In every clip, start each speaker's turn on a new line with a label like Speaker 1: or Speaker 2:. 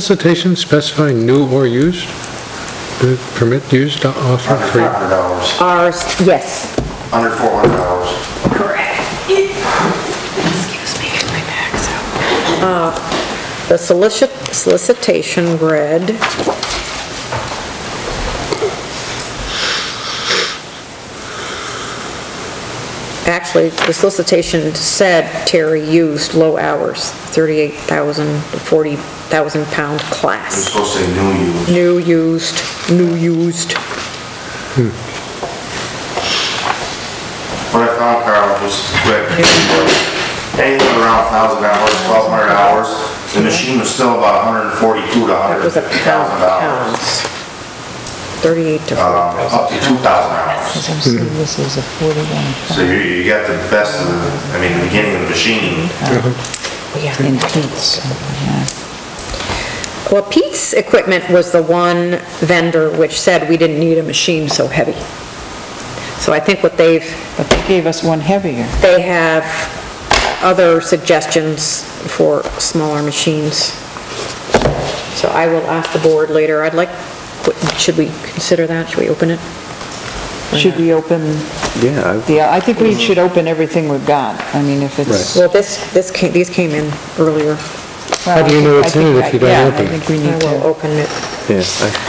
Speaker 1: Solicitation specifying new or used, Uh, permit used to offer
Speaker 2: Under
Speaker 1: free.
Speaker 2: $500,
Speaker 3: Ours, yes.
Speaker 2: under $400.
Speaker 3: Uh, The solicit, solicitation read, actually, the solicitation said Terry used low hours, 38,000 to 40,000 pound
Speaker 2: It's
Speaker 3: class.
Speaker 2: supposed to say new use.
Speaker 3: New used, new used.
Speaker 2: What I found, Carl, just quick, was anything around $1,000, $1,200, the machine was still about $142 to
Speaker 3: That was a pound,
Speaker 2: $150,000.
Speaker 3: pounds. 38 to
Speaker 2: um,
Speaker 3: 40,000.
Speaker 2: Up to $2,000.
Speaker 4: I'm seeing this is a 41.
Speaker 2: So you, you got the best of, the- I mean, the beginning of the machine.
Speaker 4: Oh, In Pete's, yeah.
Speaker 3: Well, Pete's equipment was the one vendor which said we didn't need a machine so heavy. So I think what they've,
Speaker 4: But they gave us one heavier.
Speaker 3: they have other suggestions for smaller machines. So I will ask the board later. I'd like, what- should we consider that? Should we open it?
Speaker 4: Should we open
Speaker 5: Yeah,
Speaker 4: the, I think we should open everything we've got. I mean, if it's.
Speaker 3: Well, this, this, ca- these came in earlier.
Speaker 4: How
Speaker 1: do you know it's in it if you don't open it?
Speaker 4: Yeah, I think we
Speaker 3: I
Speaker 4: need
Speaker 3: will
Speaker 4: to.
Speaker 3: open it.
Speaker 5: I-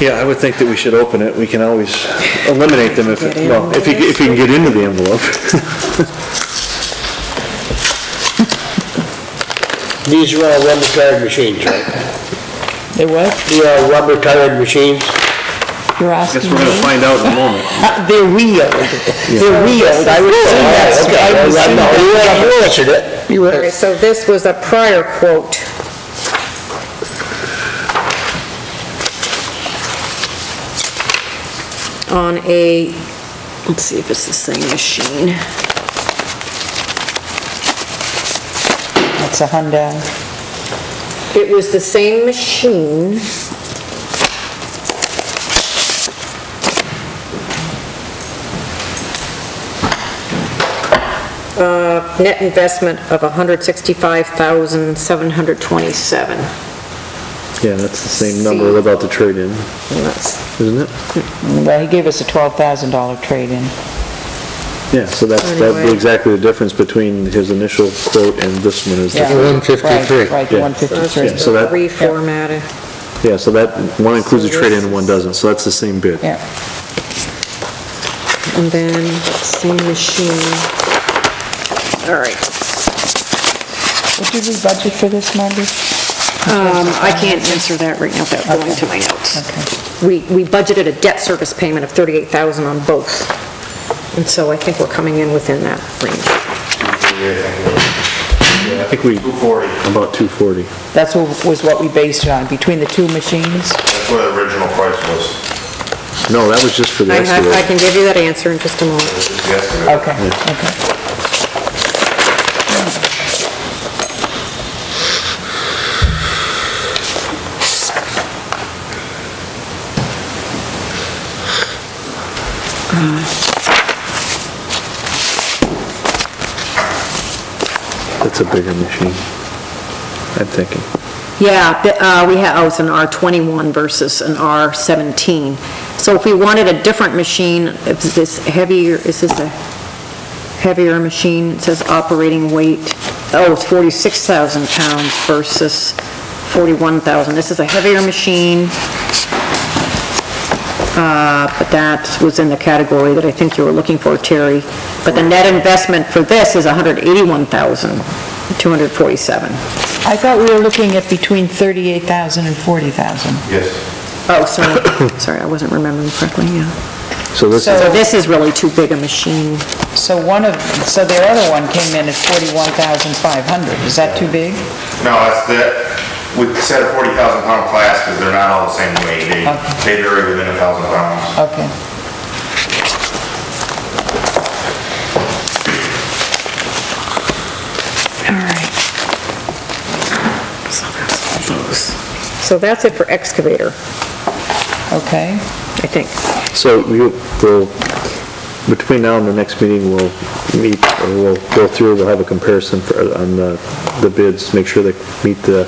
Speaker 5: yeah. I- Yeah, I would think that we should open it. We can always eliminate them if,
Speaker 3: Get in.
Speaker 5: well, if you, if you can get into the envelope.
Speaker 6: These are all rubber-tired machines, right?
Speaker 4: It what?
Speaker 6: These are rubber-tired machines.
Speaker 4: You're
Speaker 5: I guess
Speaker 4: asking
Speaker 5: we're
Speaker 4: me?
Speaker 5: gonna find out in a moment.
Speaker 6: They're wheeled. They're wheeled, I would say.
Speaker 4: that's- I would say that.
Speaker 6: You answered it. You
Speaker 3: Okay,
Speaker 6: answered
Speaker 3: so this was a prior quote. On a, let's see if it's the same machine.
Speaker 4: It's a Hyundai.
Speaker 3: It was the same machine. Uh, Net investment of 165,727.
Speaker 5: Yeah, that's the same number without the trade-in,
Speaker 3: And that's-
Speaker 5: isn't it?
Speaker 4: Well, he gave us a $12,000 trade-in.
Speaker 5: Yeah, so that's, that'd be
Speaker 3: Anyway.
Speaker 5: exactly the difference between his initial quote and this one is,
Speaker 4: Yeah.
Speaker 5: the-
Speaker 1: 153.
Speaker 4: Right, right, the
Speaker 5: Yeah.
Speaker 3: That's
Speaker 5: Yeah,
Speaker 3: just
Speaker 5: so
Speaker 4: 153.
Speaker 5: that-
Speaker 3: reformatted.
Speaker 5: yeah, so that, one includes a trade-in and one doesn't, so that's the same bid.
Speaker 4: Yeah,
Speaker 3: And then, same machine. All right,
Speaker 4: What did we budget for this, Margaret?
Speaker 3: um, I can't answer that right now, without going to my notes.
Speaker 4: Okay.
Speaker 3: We, we budgeted a debt service payment of 38,000 on both, and so I think we're coming in within that range.
Speaker 5: I think we,
Speaker 2: 240,
Speaker 5: about 240.
Speaker 4: That's what, was what we based it on, between the two machines?
Speaker 2: that's what the original price was.
Speaker 5: No, that was just for the
Speaker 3: I have, I
Speaker 5: excavator.
Speaker 3: can give you that answer in just a moment.
Speaker 2: This is the estimate.
Speaker 4: Okay, okay.
Speaker 5: That's a bigger machine, I'm thinking.
Speaker 3: Yeah, the- uh, we have, oh, it's an R21 versus an R17. So if we wanted a different machine, is this heavier, is this a heavier machine? It says operating weight, oh, it's 46,000 pounds versus 41,000. This is a heavier machine, Uh, but that was in the category that I think you were looking for, Terry. But the net investment for this is 181,247.
Speaker 4: I thought we were looking at between 38,000 and 40,000.
Speaker 2: Yes,
Speaker 3: Oh, sorry, sorry, I wasn't remembering correctly, yeah.
Speaker 5: So this is,
Speaker 4: So-
Speaker 3: So this is really too big a machine.
Speaker 4: So one of, so their other one came in at 41,500. Is that too big?
Speaker 2: no, that's the, we said a 40,000 pound class because they're not all the same weight. They, they vary within 1,000 pounds.
Speaker 4: Okay.
Speaker 3: All right. So that's all those. So that's it for excavator,
Speaker 4: Okay.
Speaker 3: I think.
Speaker 5: so you, the between now and the next meeting, we'll meet, or we'll go through, we'll have a comparison for, on the, the bids, make sure they meet the